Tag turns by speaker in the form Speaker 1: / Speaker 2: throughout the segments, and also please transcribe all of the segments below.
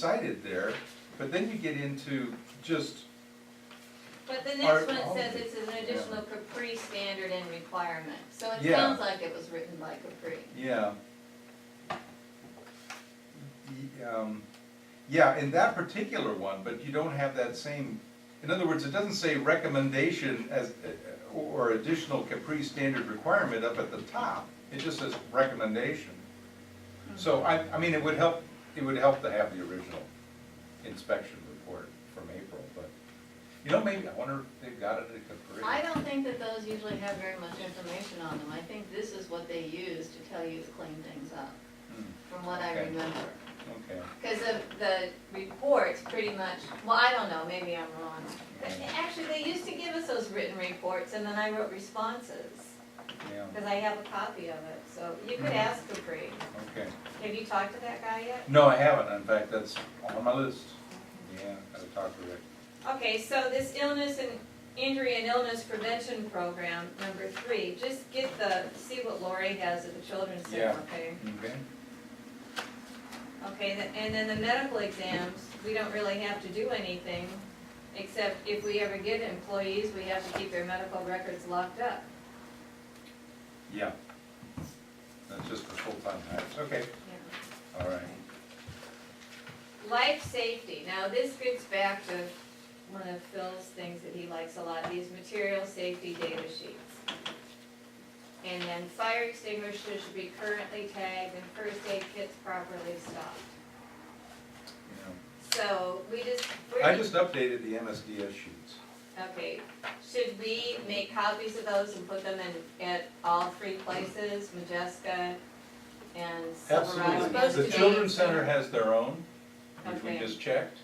Speaker 1: cited there, but then you get into just,
Speaker 2: But the
Speaker 1: Art-
Speaker 2: next one says it's an additional Capri standard and requirement, so it
Speaker 1: Yeah.
Speaker 2: sounds like it was written by Capri.
Speaker 1: yeah. Y- um, Yeah, in that particular one, but you don't have that same, in other words, it doesn't say recommendation as, or additional Capri standard requirement up at the top. It just says recommendation. So
Speaker 2: Hmm.
Speaker 1: I, I mean, it would help, it would help to have the original inspection report from April, but, you know, maybe, I wonder if they've got it at Capri.
Speaker 2: I don't think that those usually have very much information on them, I think this is what they use to tell you to clean things up,
Speaker 1: Hmm.
Speaker 2: from what I
Speaker 1: Okay.
Speaker 2: remember.
Speaker 1: Okay,
Speaker 2: Because of the reports, pretty much, well, I don't know, maybe I'm wrong. But
Speaker 1: Mm.
Speaker 2: Actually, they used to give us those written reports, and then I wrote responses,
Speaker 1: yeah,
Speaker 2: because I have a copy of it, so you could
Speaker 1: Mm.
Speaker 2: ask Capri.
Speaker 1: okay.
Speaker 2: Have you talked to that guy yet?
Speaker 1: No, I haven't, in fact, that's on my list. Yeah, gotta talk to Rick.
Speaker 2: Okay, so this illness and injury and illness prevention program, number three, just get the, see what Lori has at the children's
Speaker 1: Yeah.
Speaker 2: center, okay?
Speaker 1: Okay.
Speaker 2: Okay, th- and then the medical exams, we don't really have to do anything, except if we ever get employees, we have to keep their medical records locked up.
Speaker 1: Yeah. That's just for full-time hires, okay, all right.
Speaker 2: Life safety, now this gets back to one of Phil's things that he likes a lot, these material safety data sheets. And then fire extinguishers should be currently tagged and first aid kits properly stocked.
Speaker 1: Yeah.
Speaker 2: So we just, we're.
Speaker 1: I just updated the MSDS sheets.
Speaker 2: Okay, should we make copies of those and put them in, at all three places, Majeska and Silverado?
Speaker 1: Absolutely. The Children's Center has their own, which we
Speaker 2: Okay.
Speaker 1: just checked,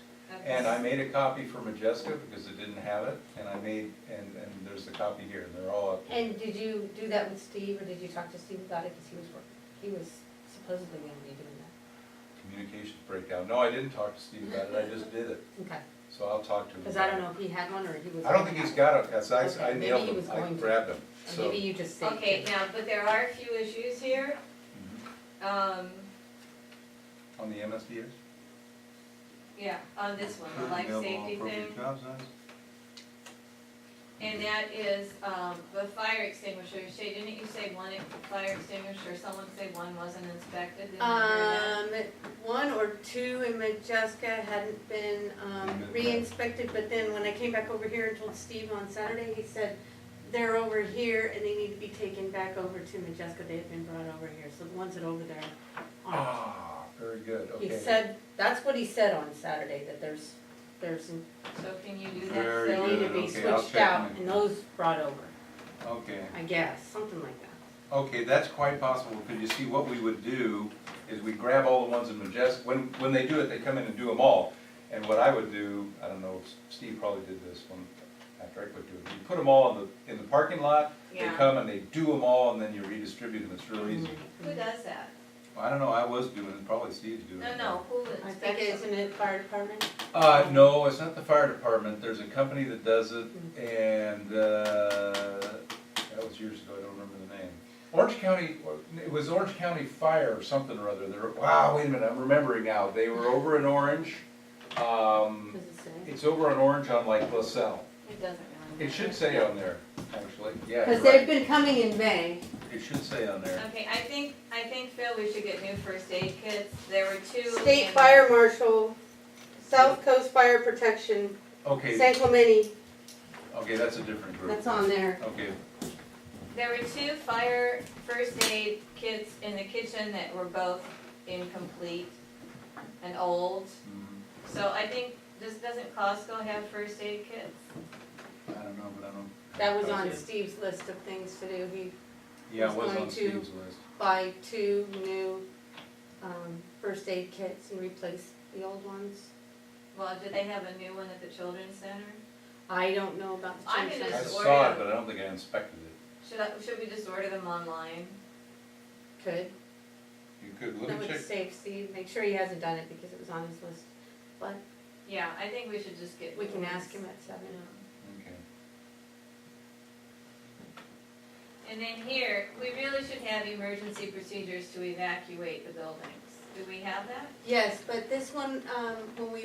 Speaker 1: and I made a copy for Majeska because it didn't have it, and I made, and, and there's the copy here, and they're all updated.
Speaker 3: And did you do that with Steve, or did you talk to Steve about it, because he was working, he was supposedly gonna be doing that?
Speaker 1: Communications breakdown, no, I didn't talk to Steve about it, I just did it,
Speaker 3: Okay,
Speaker 1: so I'll talk to him.
Speaker 3: because I
Speaker 1: about it.
Speaker 3: don't know if he had one, or he was.
Speaker 1: I don't think he's got it, because I, I
Speaker 3: Okay, maybe
Speaker 1: nailed
Speaker 3: he
Speaker 1: him,
Speaker 3: was
Speaker 1: I
Speaker 3: going to.
Speaker 1: grabbed him,
Speaker 3: Or
Speaker 1: so.
Speaker 3: Maybe you just saved
Speaker 2: Okay,
Speaker 3: it.
Speaker 2: now, but there are a few issues here,
Speaker 1: Mhm.
Speaker 2: um,
Speaker 1: On the MSDS?
Speaker 2: yeah, on this one, the life safety thing. And that is, um, the fire extinguisher, Shay, didn't you say one fire extinguisher, someone say one wasn't inspected? Didn't you hear that?
Speaker 4: Um, one or two in Majeska hadn't been, um, re-inspected, but then when I came back over here and told Steve on Saturday, he said, they're over here and they need to be taken back over to Majeska, they have been brought over here, so the ones that over there aren't.
Speaker 1: Ah, very good,
Speaker 3: He
Speaker 1: okay.
Speaker 3: said, that's what he said on Saturday, that there's, there's,
Speaker 4: Uh,
Speaker 2: So can you do that?
Speaker 1: Very
Speaker 3: they need to
Speaker 1: good,
Speaker 3: be
Speaker 1: okay, I'll
Speaker 3: switched out,
Speaker 1: check.
Speaker 3: and those brought over,
Speaker 1: my- Okay,
Speaker 3: I guess, something like that.
Speaker 1: okay, that's quite possible, because you see, what we would do is we grab all the ones in Majeska, when, when they do it, they come in and do them all. And what I would do, I don't know, Steve probably did this one, Patrick would do it, you put them all in the, in the parking lot, they
Speaker 2: Yeah. Mm-hmm.
Speaker 1: come and they do them all, and then you redistribute them, it's real easy.
Speaker 2: Who does that?
Speaker 1: I don't know, I was doing it, probably Steve's doing it.
Speaker 2: No, no, who
Speaker 4: I
Speaker 2: inspects
Speaker 4: think
Speaker 2: them?
Speaker 4: it's in the fire department,
Speaker 1: Uh, no, it's not the fire department, there's a company that does it, and, uh, that was years ago, I don't remember the name. Orange County, it was Orange County Fire or something or other, they're, wow, wait a minute, I'm remembering now, they were over in Orange, um,
Speaker 4: does it say?
Speaker 1: it's over in Orange on like LaSalle.
Speaker 2: It doesn't really.
Speaker 1: It should say on there, actually, yeah, you're
Speaker 4: Cause they've
Speaker 1: right,
Speaker 4: been coming in May,
Speaker 1: it should say on there.
Speaker 2: Okay, I think, I think Phil, we should get new first aid kits, there were two.
Speaker 4: state
Speaker 2: in-
Speaker 4: fire marshal, South Coast Fire Protection,
Speaker 1: Okay,
Speaker 4: San Clemente,
Speaker 1: okay, that's a different group.
Speaker 4: that's on there.
Speaker 1: Okay,
Speaker 2: There were two fire first aid kits in the kitchen that were both incomplete and old.
Speaker 1: mm,
Speaker 2: So I think, this doesn't Costco have first aid kits?
Speaker 1: I don't know, but I don't.
Speaker 4: That was
Speaker 1: Oh,
Speaker 4: on Steve's list of things to do, he
Speaker 1: Yeah, it
Speaker 4: was
Speaker 1: was on
Speaker 4: going to-
Speaker 1: Steve's list.
Speaker 4: buy two new um, first aid kits and replace the old ones.
Speaker 2: Well, do they have a new one at the children's center?
Speaker 4: I don't know about the
Speaker 2: I'm
Speaker 4: change
Speaker 2: gonna
Speaker 1: I
Speaker 2: Just
Speaker 4: size.
Speaker 2: order
Speaker 1: saw it,
Speaker 2: them.
Speaker 1: but I don't think I inspected it.
Speaker 2: Should I, should we just order them online?
Speaker 4: Could,
Speaker 1: You could, let
Speaker 4: that
Speaker 1: me check,
Speaker 4: would save Steve, make sure he hasn't done it because it was on his list. But
Speaker 2: Yeah, I think we should just get.
Speaker 4: we can
Speaker 2: new
Speaker 4: ask
Speaker 2: ones.
Speaker 4: him at seven.
Speaker 1: okay.
Speaker 2: And then here, we really should have emergency procedures to evacuate the buildings. Do we have that?
Speaker 4: Yes, but this one, um, when we